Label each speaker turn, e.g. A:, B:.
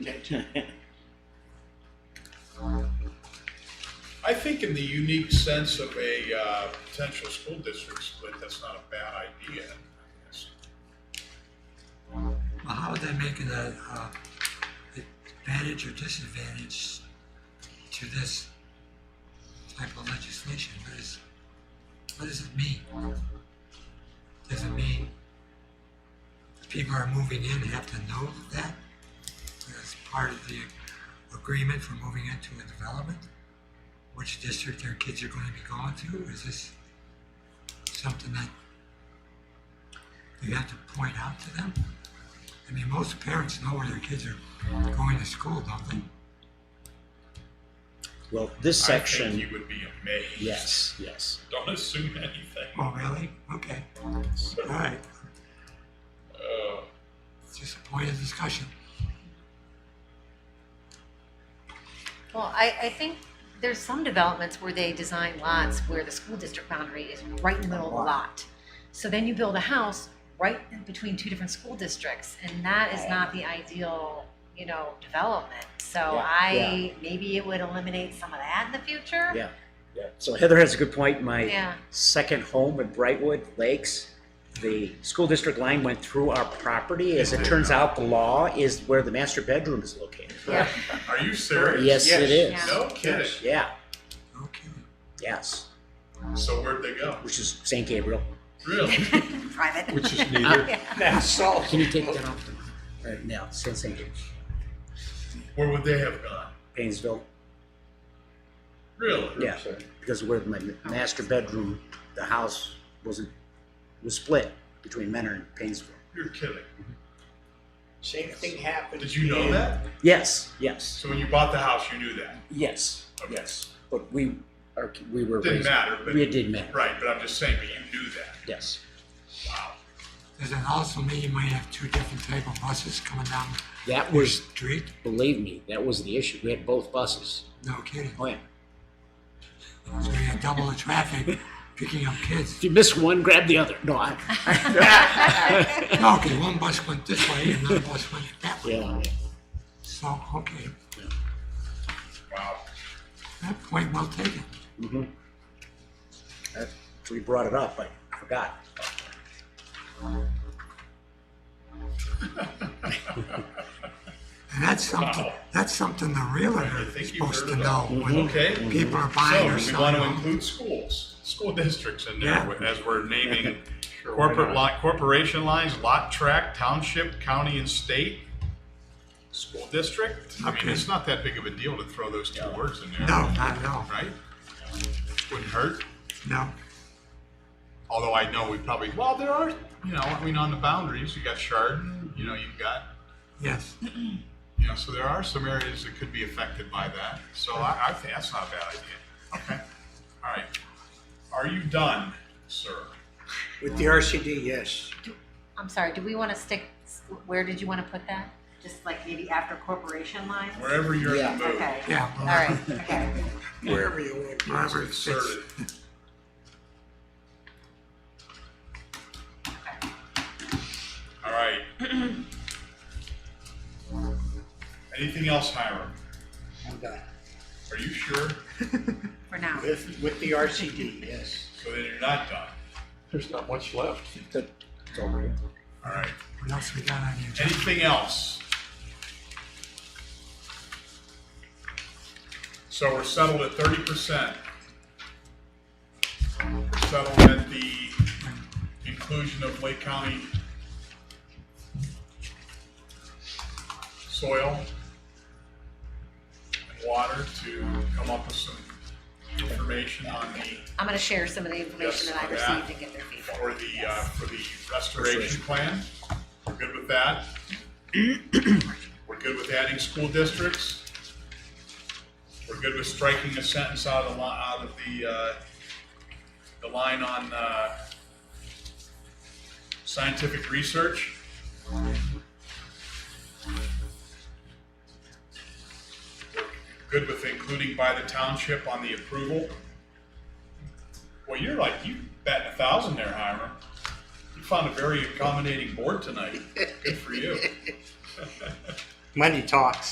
A: I think in the unique sense of a uh, potential school district split, that's not a bad idea. I guess.
B: Well, how would that make it a, uh, advantage or disadvantage to this type of legislation? What is, what does it mean? Does it mean the people are moving in have to know that as part of the agreement for moving into a development? Which district their kids are going to be going to? Is this something that you have to point out to them? I mean, most parents know where their kids are going to school, don't they?
C: Well, this
A: I
C: section,
A: think you would be amazed.
C: yes, yes.
A: Don't assume anything.
B: Oh, really? Okay, all right.
A: Uh,
B: It's just a point of discussion.
D: Well, I, I think there's some developments where they design lots where the school district boundary is right in the middle of the lot. So then you build a house right in between two different school districts, and that is not the ideal, you know, development. So
C: Yeah,
D: I, maybe it would eliminate some of that in the future.
C: Yeah. So Heather has a good point. My
D: Yeah,
C: second home in Brightwood Lakes, the school district line went through our property. As it turns out, the law is where the master bedroom is located.
D: yeah,
A: Are you serious?
C: Yes, it
D: Yes.
C: is.
A: No kidding.
C: Yeah,
B: Okay.
C: yes,
A: So where'd they go?
C: which is St. Gabriel.
A: Really?
D: private.
E: Which is neither.
C: Can you take that off? the- Uh, no, it's still St. Gabriel.
A: Where would they have gone?
C: Painesville,
A: Really?
C: yeah, because where my master bedroom, the house wasn't, was split between Menor and Painesville.
A: You're kidding.
F: Same thing happened.
A: Did you know that?
C: Yes, yes.
A: So when you bought the house, you knew that.
C: Yes,
A: Okay.
C: yes, but we are, we were.
A: Didn't
C: raised-
A: matter, but-
C: It did matter,
A: Right, but I'm just saying, but you knew that.
C: yes.
A: Wow.
B: Does that also mean you might have two different type of buses coming down
C: That
B: the
C: was,
B: street?
C: believe me, that was the issue. We had both buses.
B: No kidding.
C: Oh, yeah.
B: So you had double the traffic picking up
C: If
B: kids.
C: you miss one, grab the other. No, I,
B: No, okay, one bus went this way and another bus went that way.
C: yeah,
B: So, okay,
A: Wow.
B: that point well taken.
C: mm-hmm. We brought it up, I forgot.
B: And that's something,
A: Wow.
B: that's something the
A: I
B: realtor
A: think
B: is
A: you heard
B: supposed to know
A: about-
B: when
A: Okay.
B: people are buying
A: So
B: or
A: we want
B: selling.
A: to
B: homes.
A: include schools, school districts in
B: Yeah.
A: there as we're naming corporate lot, corporation lines, lot track, township, county and state, school district. I mean,
B: Okay.
A: it's not that big of a deal to throw those two words in there.
B: No, not at all,
A: Right? Wouldn't hurt.
B: no.
A: Although I know we probably, well, there are, you know, I mean, on the boundaries, you got Chardon, you know, you've got,
B: Yes,
A: you know, so there are some areas that could be affected by that. So I, I think that's not a bad idea. Okay. All right. Are you done, sir?
F: With the RCD, yes.
D: I'm sorry, do we want to stick, where did you want to put that? Just like maybe after corporation lines?
A: Wherever you're in the mood.
D: Okay,
B: yeah.
D: all right, okay.
F: Wherever you want.
B: Wherever it
A: Insert
B: fits.
A: it. All right. Anything else, Hiram?
F: I'm done.
A: Are you sure?
D: For now.
F: With, with the RCD, yes.
A: So then you're not done.
E: There's not much left.
C: It's over here.
A: All right.
B: What else we got on the agenda?
A: Anything else? So we're settled at thirty percent. We're settled at the inclusion of Lake County soil and water to come up with some information on the,
D: I'm gonna share some of the information
A: Yes,
D: that I
A: for that.
D: received and get their feedback.
A: for the, uh, for the restoration plan. We're good with that? We're good with adding school districts? We're good with striking a sentence out of the, li- out of the, uh, the line on, uh, scientific research? We're Good with including by the township on the approval? Well, you're like, you batting a thousand there, Hiram. You found a very accommodating board tonight. Good for you.
F: Money talks.